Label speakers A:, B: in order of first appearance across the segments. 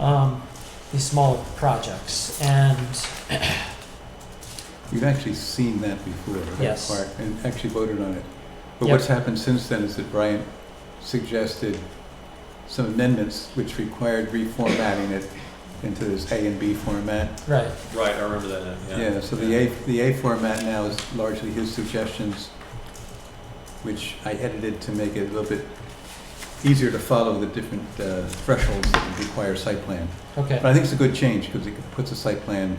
A: um, these small projects. And
B: You've actually seen that before. that
A: Yes.
B: part, And actually voted on it. But
A: Yep.
B: what's happened since then is that Brian suggested some amendments which required reformatting it into this A and B format.
A: right,
C: Right, I remember that, yeah.
B: Yeah, so the A, the A format now is largely his suggestions, which I edited to make it a little bit easier to follow the different uh, thresholds that require site plan. But
A: okay,
B: I think it's a good change because it puts the site plan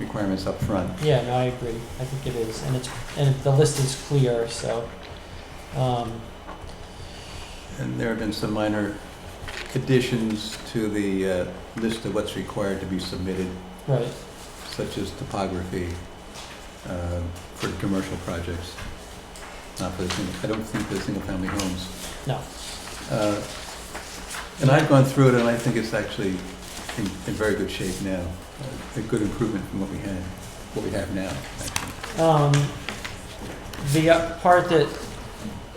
B: requirements up front.
A: yeah, no, I agree. I think it is, and it's and the list is clear. So, um,
B: And there have been some minor additions to the uh, list of what's required to be submitted,
A: right,
B: such as topography uh, for commercial projects. Not for the, sing- I don't think the single-family homes.
A: No.
B: Uh, And I've gone through it, and I think it's actually in in very good shape now, uh, a good improvement from what we had, what we have now, actually.
A: Um, the uh, part that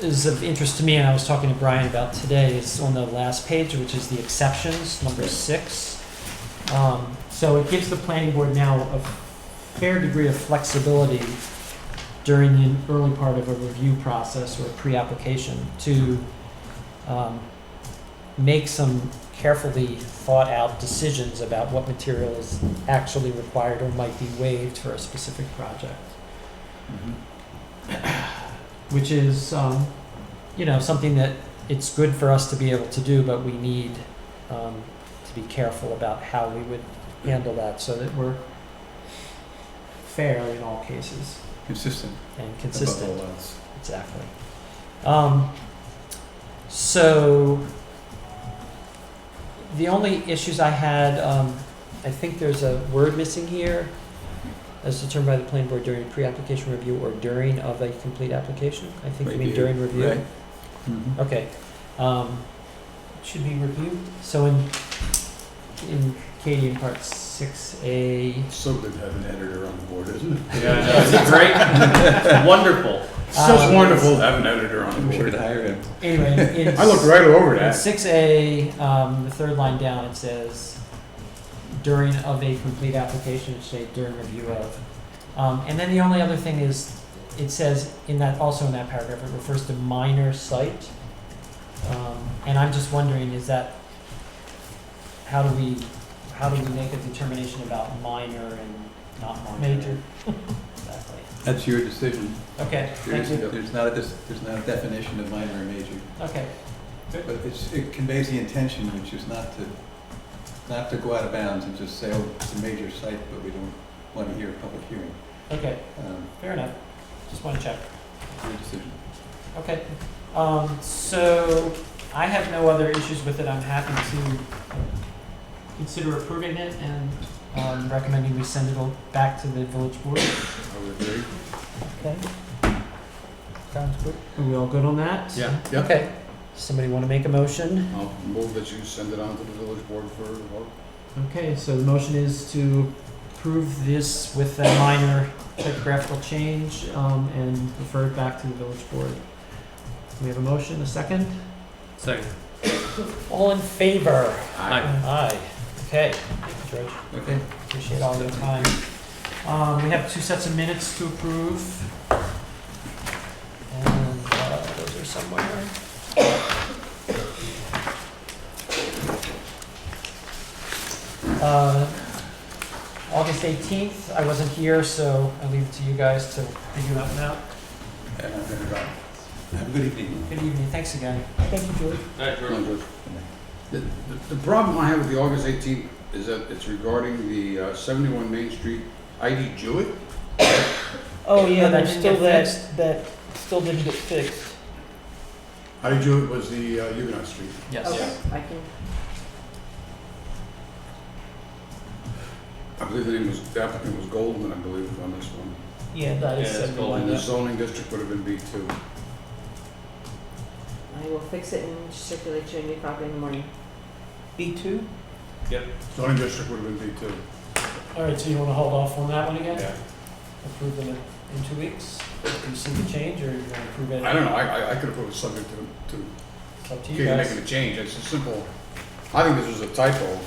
A: is of interest to me, and I was talking to Brian about today, is on the last page, which is the exceptions, number
B: Right.
A: six. Um, so it gives the planning board now a fair degree of flexibility during the early part of a review process or pre-application to um, make some carefully thought-out decisions about what material is actually required or might be waived for a specific project
B: Mm-hmm.
A: which is, um, you know, something that it's good for us to be able to do, but we need um, to be careful about how we would handle that so that we're fair in all cases
B: consistent
A: and
B: above
A: consistent.
B: all else.
A: Exactly. Um, so the only issues I had, um, I think there's a word missing here, as determined by the planning board during pre-application review or during of a complete application. I think you mean
B: Review,
A: during review.
B: right. Mhm.
A: Okay. Um, should be reviewed. So in in Katie in part six A.
D: So good to have an editor on the board, isn't it?
C: Yeah, I know. Is it great? Wonderful.
D: So
A: Um,
D: wonderful to have an editor on
B: I'm
D: the
B: sure to
D: board.
B: hire him.
A: Anyway, in
D: I looked right over
A: In
D: that.
A: six A, um, the third line down, it says during of a complete application, it say during review of. Um, and then the only other thing is, it says in that, also in that paragraph, it refers to minor site. Um, and I'm just wondering, is that, how do we, how do we make a determination about minor and not minor?
E: Major.
A: Exactly.
B: That's your decision.
A: Okay,
B: There
A: thank
B: is,
A: you.
B: there's not a, dis- there's not a definition of minor or major,
A: Okay,
B: but it's, it conveys the intention, which is not to, not to go out of bounds and just say, oh, it's a major site, but we don't want to hear a public hearing.
A: okay,
B: Um,
A: fair enough. Just wanna check.
B: it's your decision.
A: Okay, um, so I have no other issues with it, I'm happy to consider approving it and, um, recommending we send it all back to the village board.
D: I would agree.
A: Okay. Sounds good. Are we all good on that?
C: Yeah.
D: Yep.
A: Okay, somebody wanna make a motion?
D: I'll move that you send it on to the village board for a vote.
A: Okay, so the motion is to approve this with a minor typographical change, um, and refer it back to the village board. We have a motion, a second?
C: Second.
A: All in favor?
C: Aye.
A: Aye. Okay, thank you, George.
B: Okay,
A: Appreciate all your time. Um, we have two sets of minutes to approve. And, uh, those are somewhere. Uh, August eighteenth, I wasn't here, so I leave it to you guys to figure that one out.
B: and I'm gonna drop. Have a good evening.
A: Good evening, thanks again.
E: Thank you, George.
C: All right, Jordan.
D: The, the- the problem I have with the August 18th is that it's regarding the uh, 71 Main Street ID Jewett.
E: Oh, yeah,
A: But
E: there's
A: that didn't
E: still
A: get
E: that,
A: fixed.
E: that still didn't get fixed.
D: ID Jewett was the uh, Huguenot Street.
A: Yes.
E: I can.
D: I believe the name was, the applicant was Goldman, I believe, on this one.
E: Yeah, that is
C: Yeah, it's
A: Oh,
E: seventy-one.
D: And the zoning district would have been B2.
F: I will fix it and circulate you a new copy in the morning.
E: B two?
D: Zoning district would have been B2.
A: All right, so you wanna hold off on that one again?
D: Yeah.
A: Approve them in in two weeks? Do you see the change, or you wanna approve it?
D: I don't know, I, I- I could have put it subject to, to
A: It's up to you
D: Katie
A: guys.
D: making a change, it's a simple, I think this was a typo,